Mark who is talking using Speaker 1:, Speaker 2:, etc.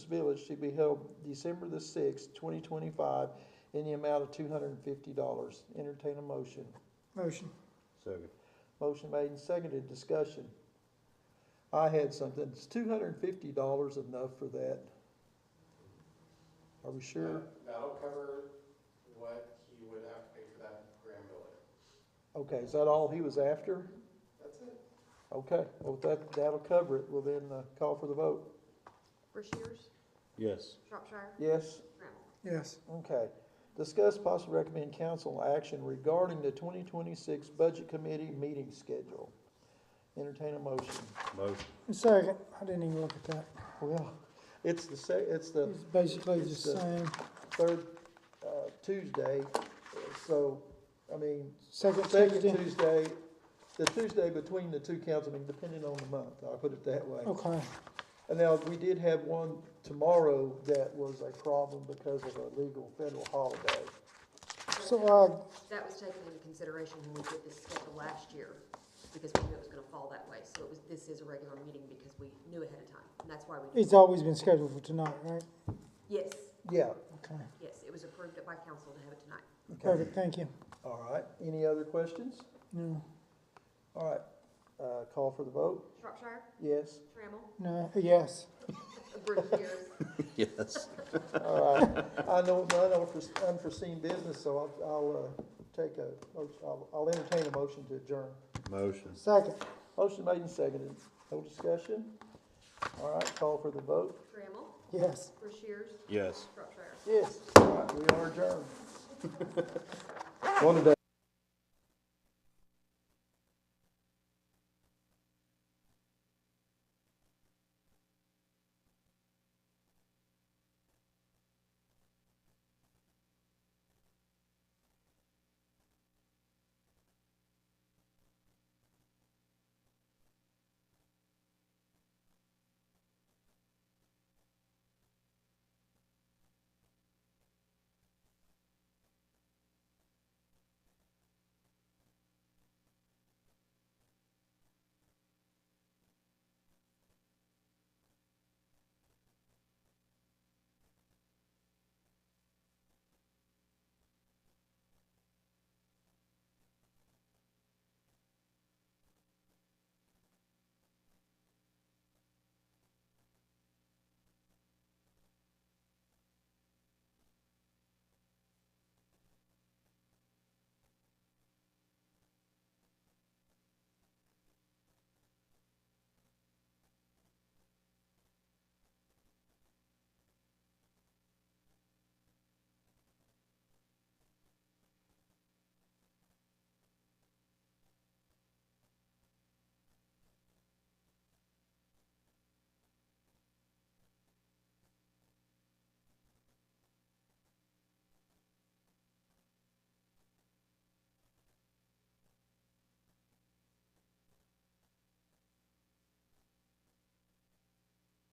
Speaker 1: Village to be held December the sixth, twenty twenty-five, in the amount of two hundred and fifty dollars. Entertain a motion.
Speaker 2: Motion.
Speaker 3: Second.
Speaker 1: Motion made and seconded, discussion. I had something, it's two hundred and fifty dollars enough for that? Are we sure?
Speaker 4: That'll cover what he would have to pay for that grand building.
Speaker 1: Okay, is that all he was after?
Speaker 4: That's it.
Speaker 1: Okay, well, that, that'll cover it, we'll then uh, call for the vote.
Speaker 5: Rushiers,
Speaker 3: Yes.
Speaker 5: Shropshire,
Speaker 1: Yes?
Speaker 5: Trammell.
Speaker 2: Yes.
Speaker 1: Okay. Discuss possible recommend council action regarding the twenty twenty-six budget committee meeting schedule. Entertain a motion.
Speaker 3: Motion.
Speaker 2: Second, I didn't even look at that.
Speaker 1: Well, it's the sec, it's the
Speaker 2: It's basically the
Speaker 1: It's, uh,
Speaker 2: same.
Speaker 1: third, uh, Tuesday, so, I mean,
Speaker 2: Second
Speaker 1: second
Speaker 2: Tuesday.
Speaker 1: Tuesday, the Tuesday between the two council, I mean, depending on the month, I'll put it that way.
Speaker 2: Okay,
Speaker 1: And now, we did have one tomorrow that was a problem because of a legal federal holiday.
Speaker 2: so, uh,
Speaker 5: That was taken into consideration when we did this schedule last year, because we knew it was gonna fall that way. So it was, this is a regular meeting because we knew ahead of time, and that's why
Speaker 2: uh,
Speaker 5: we.
Speaker 2: it's always been scheduled for tonight, right?
Speaker 5: Yes,
Speaker 1: Yeah,
Speaker 2: Okay,
Speaker 5: yes, it was approved by council to have it tonight.
Speaker 2: perfect, thank you.
Speaker 1: all right, any other questions?
Speaker 2: No,
Speaker 1: All right, uh, call for the vote,
Speaker 5: Shropshire,
Speaker 1: yes,
Speaker 5: Trammell,
Speaker 2: no, yes,
Speaker 5: Rushiers,
Speaker 3: Yes.
Speaker 1: all right. I know, I know unforeseen- unforeseen business, so I'll, I'll, uh, take a, motion- I'll, I'll entertain a motion to adjourn.
Speaker 3: Motion.
Speaker 2: second,
Speaker 1: Motion made and seconded, no discussion, all right, call for the vote,
Speaker 5: Trammell,
Speaker 2: yes.
Speaker 5: Rushiers,
Speaker 3: Yes.
Speaker 5: Shropshire.
Speaker 1: yes, all right, we are adjourned. One today.